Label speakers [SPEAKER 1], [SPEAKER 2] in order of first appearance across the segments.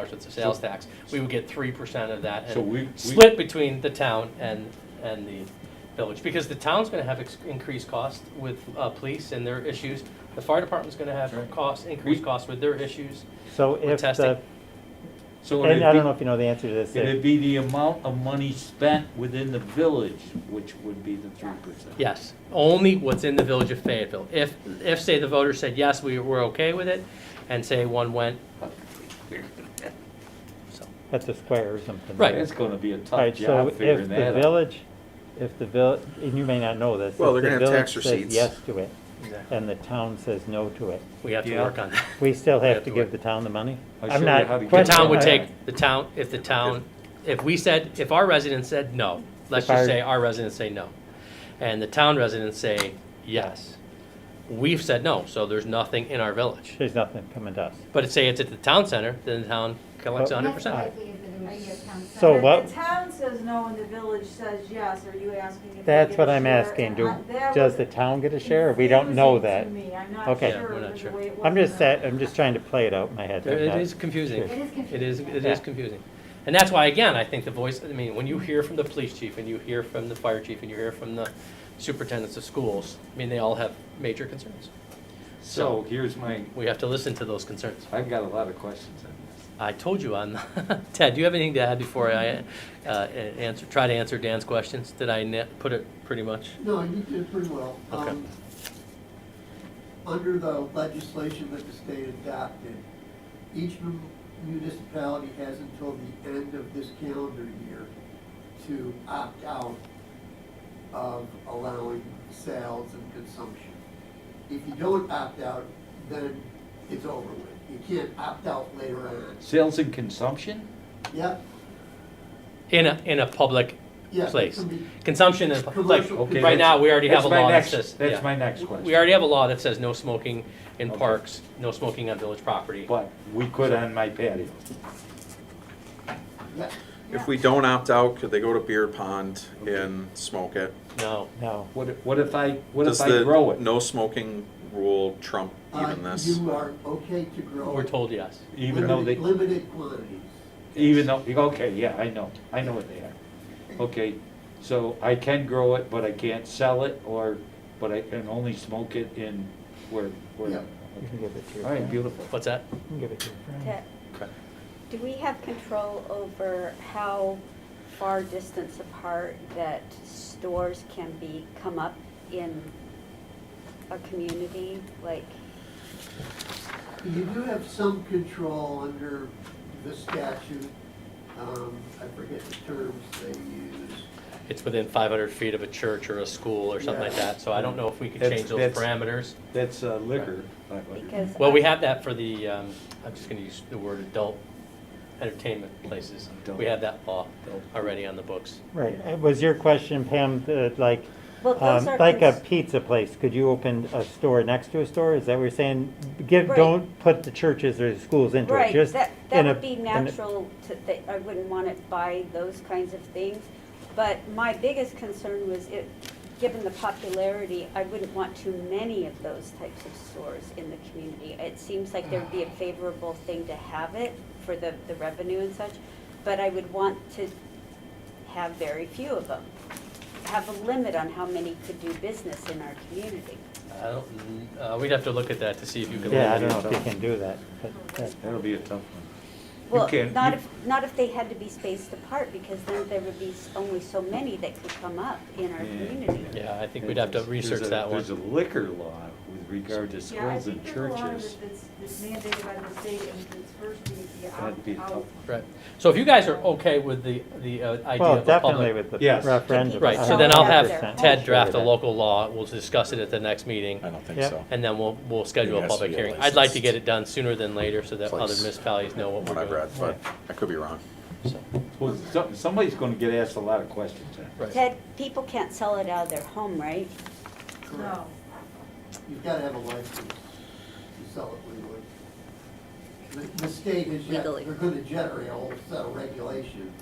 [SPEAKER 1] tax, it's a sales tax, we would get three percent of that. and
[SPEAKER 2] So we- we-
[SPEAKER 1] Split between the town and, and the village, because the town's gonna have ex- increased cost with, uh, police and their issues. The fire department's gonna have
[SPEAKER 2] Right.
[SPEAKER 1] costs, increased
[SPEAKER 2] We-
[SPEAKER 1] costs with their issues.
[SPEAKER 3] So
[SPEAKER 1] We're
[SPEAKER 3] if the,
[SPEAKER 1] testing.
[SPEAKER 2] So
[SPEAKER 3] and I don't know
[SPEAKER 2] it'd
[SPEAKER 3] if you know the answer to this.
[SPEAKER 2] be, it'd be the amount of money spent within the village, which would be the three percent.
[SPEAKER 1] Yes, only what's in the village of Fayetteville. If, if, say, the voters said, yes, we, we're okay with it, and say one went, so.
[SPEAKER 3] That's a square or something.
[SPEAKER 1] Right.
[SPEAKER 2] It's gonna be a
[SPEAKER 3] All
[SPEAKER 2] tough
[SPEAKER 3] right, so
[SPEAKER 2] job
[SPEAKER 3] if
[SPEAKER 2] figuring
[SPEAKER 3] the
[SPEAKER 2] that out.
[SPEAKER 3] village, if the village, and you may not know this.
[SPEAKER 4] Well,
[SPEAKER 3] if the
[SPEAKER 4] they're gonna have
[SPEAKER 3] village
[SPEAKER 4] tax
[SPEAKER 3] says
[SPEAKER 4] receipts.
[SPEAKER 3] Yes to it,
[SPEAKER 1] Exactly.
[SPEAKER 3] and the town says no to it.
[SPEAKER 1] We have to
[SPEAKER 2] Yeah.
[SPEAKER 1] work on that.
[SPEAKER 3] We still
[SPEAKER 1] We
[SPEAKER 3] have to give
[SPEAKER 1] work.
[SPEAKER 3] the town the money?
[SPEAKER 2] I
[SPEAKER 3] I'm
[SPEAKER 2] sure
[SPEAKER 3] not.
[SPEAKER 2] have to give
[SPEAKER 1] The
[SPEAKER 2] Right.
[SPEAKER 1] town would
[SPEAKER 3] questioning
[SPEAKER 1] take,
[SPEAKER 3] that.
[SPEAKER 1] the town, if the town, if we said, if our residents said no, let's
[SPEAKER 3] If our-
[SPEAKER 1] just say our residents say no, and the town residents say yes, we've said no, so there's nothing in our village.
[SPEAKER 3] There's nothing coming to us.
[SPEAKER 1] But say it's at the town center, then the town collects
[SPEAKER 3] Oh.
[SPEAKER 1] hundred
[SPEAKER 5] Most
[SPEAKER 1] percent.
[SPEAKER 5] likely if it was-
[SPEAKER 3] So
[SPEAKER 6] If
[SPEAKER 3] what-
[SPEAKER 6] The town says no and the village says yes, are you asking if they
[SPEAKER 3] That's
[SPEAKER 6] get
[SPEAKER 3] what
[SPEAKER 6] a
[SPEAKER 3] I'm
[SPEAKER 6] share?
[SPEAKER 3] asking. Do,
[SPEAKER 6] Uh, that
[SPEAKER 3] does
[SPEAKER 6] was
[SPEAKER 3] the town get a share? We don't know that.
[SPEAKER 6] confusing to me. I'm not
[SPEAKER 3] Okay.
[SPEAKER 6] sure
[SPEAKER 3] Yeah,
[SPEAKER 1] we're not
[SPEAKER 6] with the
[SPEAKER 1] sure.
[SPEAKER 6] way it was
[SPEAKER 3] I'm just,
[SPEAKER 6] in the-
[SPEAKER 3] sa- I'm just trying to play it out in my head.
[SPEAKER 1] There-
[SPEAKER 3] I'm
[SPEAKER 1] It
[SPEAKER 3] not-
[SPEAKER 1] is confusing.
[SPEAKER 3] It
[SPEAKER 5] is
[SPEAKER 1] It is, it
[SPEAKER 3] Yeah.
[SPEAKER 1] is confusing. And that's why, again, I think the voice, I mean, when you hear from the police chief and you hear from the fire chief and you hear from the superintendents of schools, I mean, they all have major concerns.
[SPEAKER 2] So here's my,
[SPEAKER 1] We have to listen to those concerns.
[SPEAKER 2] I've got a lot of questions on this.
[SPEAKER 1] I told you on, Ted, do you have anything to add before I uh, answer, try to answer Dan's questions? Did I na- put it pretty much?
[SPEAKER 7] No, you did pretty well.
[SPEAKER 1] Okay.
[SPEAKER 7] Um, Under the legislation that the state adopted, each mun- municipality has until the end of this calendar year to opt out of allowing sales and consumption. If you don't opt out, then it's over with. You can't opt out later on.
[SPEAKER 2] Sales and consumption?
[SPEAKER 7] Yep,
[SPEAKER 1] In a, in a public
[SPEAKER 7] yes. it
[SPEAKER 1] place.
[SPEAKER 7] can be-
[SPEAKER 1] Consumption in, a pu- like,
[SPEAKER 7] Commercial.
[SPEAKER 2] Okay,
[SPEAKER 1] right
[SPEAKER 2] that's-
[SPEAKER 1] now, we already have
[SPEAKER 2] that's
[SPEAKER 1] a
[SPEAKER 2] my
[SPEAKER 1] law that
[SPEAKER 2] next-
[SPEAKER 1] says. yeah.
[SPEAKER 2] That's my next question.
[SPEAKER 1] We already have a law that says no smoking in
[SPEAKER 2] Okay.
[SPEAKER 1] parks, no smoking on village property.
[SPEAKER 2] But we could on my patio.
[SPEAKER 7] yeah.
[SPEAKER 4] If we don't opt out, could they go to beer pond and smoke it?
[SPEAKER 1] No.
[SPEAKER 3] No.
[SPEAKER 2] What, if- what if I, what
[SPEAKER 4] Does
[SPEAKER 2] if I
[SPEAKER 4] the
[SPEAKER 2] grow it?
[SPEAKER 4] No smoking rule trump
[SPEAKER 7] Uh,
[SPEAKER 4] even this?
[SPEAKER 7] You are okay to grow.
[SPEAKER 1] We're told yes.
[SPEAKER 2] Even though they,
[SPEAKER 7] limited- Limited quantities.
[SPEAKER 2] even though, okay, yeah, I know, I know what they are. Okay, so I can grow it, but I can't sell it, or, but I can only smoke it in where,
[SPEAKER 7] Yeah.
[SPEAKER 2] where.
[SPEAKER 3] You can give it to your
[SPEAKER 2] All right,
[SPEAKER 3] friend. You
[SPEAKER 2] beautiful.
[SPEAKER 1] What's that?
[SPEAKER 3] can give it to your friend.
[SPEAKER 8] Ted,
[SPEAKER 1] Correct.
[SPEAKER 8] Do we have control over how far distance apart that stores can be, come up in a community? Like,
[SPEAKER 7] You do have some control under the statute, um, I forget the terms they use.
[SPEAKER 1] It's within 500 feet of a church or a school or something like
[SPEAKER 7] Yeah.
[SPEAKER 1] that, so I don't know if we could
[SPEAKER 2] That's-
[SPEAKER 1] change those
[SPEAKER 2] that's-
[SPEAKER 1] parameters.
[SPEAKER 2] That's uh, liquor. five hundred.
[SPEAKER 8] because.
[SPEAKER 1] Well, we have that for the, um, I'm just gonna use the word adult entertainment places. We have that law
[SPEAKER 2] uh,
[SPEAKER 1] already on the books.
[SPEAKER 3] Right, Uh, was your question, Pam, that like,
[SPEAKER 8] Well, those
[SPEAKER 3] um,
[SPEAKER 8] are
[SPEAKER 3] like a
[SPEAKER 8] cons-
[SPEAKER 3] pizza place, could you open a store next to a store? Is that what you're saying? Give,
[SPEAKER 8] Right.
[SPEAKER 3] don't put the churches or the schools into it,
[SPEAKER 8] Right,
[SPEAKER 3] just.
[SPEAKER 8] that,
[SPEAKER 3] in
[SPEAKER 8] that
[SPEAKER 3] a-
[SPEAKER 8] would be
[SPEAKER 3] in a-
[SPEAKER 8] natural to, that, I wouldn't want it by those kinds of things. But my biggest concern was it, given the popularity, I wouldn't want too many of those types of stores in the community. It seems like there'd be a favorable thing to have it for the, the revenue and such, but I would want to have very few of them. Have a limit on how many could do business in our community.
[SPEAKER 1] I don't, uh, we'd have to look at that to see if you can.
[SPEAKER 3] Yeah, I
[SPEAKER 1] limit it.
[SPEAKER 3] don't know if you can do that, but that-
[SPEAKER 2] That'll be a tough one. You
[SPEAKER 8] Well,
[SPEAKER 2] can't-
[SPEAKER 8] not
[SPEAKER 2] you-
[SPEAKER 8] if, not if they had to be spaced apart, because then there would be s- only so many that could come up in our
[SPEAKER 2] Yeah.
[SPEAKER 8] community.
[SPEAKER 1] Yeah, I think we'd have to
[SPEAKER 2] There's a-
[SPEAKER 1] research that
[SPEAKER 2] There's a
[SPEAKER 1] one.
[SPEAKER 2] liquor law with regard to
[SPEAKER 6] Yeah, I
[SPEAKER 2] schools
[SPEAKER 6] think
[SPEAKER 2] and
[SPEAKER 6] there's a law
[SPEAKER 2] churches.
[SPEAKER 6] that's that's mandated by the state and it's first be the out.
[SPEAKER 2] That'd be a tough
[SPEAKER 6] out-
[SPEAKER 2] one.
[SPEAKER 1] Right. So if you guys are okay with the, the uh, idea
[SPEAKER 3] well,
[SPEAKER 1] of a
[SPEAKER 3] definitely
[SPEAKER 1] public.
[SPEAKER 3] with the
[SPEAKER 2] Yes.
[SPEAKER 3] referendum.
[SPEAKER 1] Right, so then I'll have
[SPEAKER 3] 100%.
[SPEAKER 1] Ted
[SPEAKER 3] Sure
[SPEAKER 1] draft a
[SPEAKER 3] that.
[SPEAKER 1] local law. We'll discuss it at the next meeting.
[SPEAKER 9] I don't think
[SPEAKER 3] Yeah.
[SPEAKER 9] so.
[SPEAKER 1] And then we'll, we'll schedule a
[SPEAKER 9] has to
[SPEAKER 1] public
[SPEAKER 9] be a
[SPEAKER 1] hearing. I'd like to get
[SPEAKER 9] licensed
[SPEAKER 1] it done sooner than later so that other
[SPEAKER 9] place,
[SPEAKER 1] municipalities know what
[SPEAKER 9] What
[SPEAKER 1] we're
[SPEAKER 9] I've
[SPEAKER 1] doing.
[SPEAKER 9] read, but I could be wrong.
[SPEAKER 2] Well, some- somebody's gonna get asked a lot of questions. huh?
[SPEAKER 1] Right.
[SPEAKER 8] Ted, people can't sell it out of their home, right?
[SPEAKER 7] Correct.
[SPEAKER 6] No.
[SPEAKER 7] You've got to have a license to sell it legally. The- The state is, yet-
[SPEAKER 8] Legally.
[SPEAKER 7] they're going to generate a whole set of regulations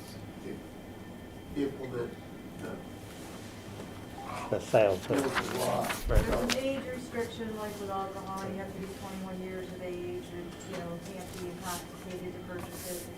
[SPEAKER 7] to implement the
[SPEAKER 3] The sales,
[SPEAKER 7] rules of law.
[SPEAKER 6] There's an
[SPEAKER 7] So,
[SPEAKER 6] age restriction, like with alcohol, you have to be twenty-one years of age and, you know, can't be intoxicated to purchase it,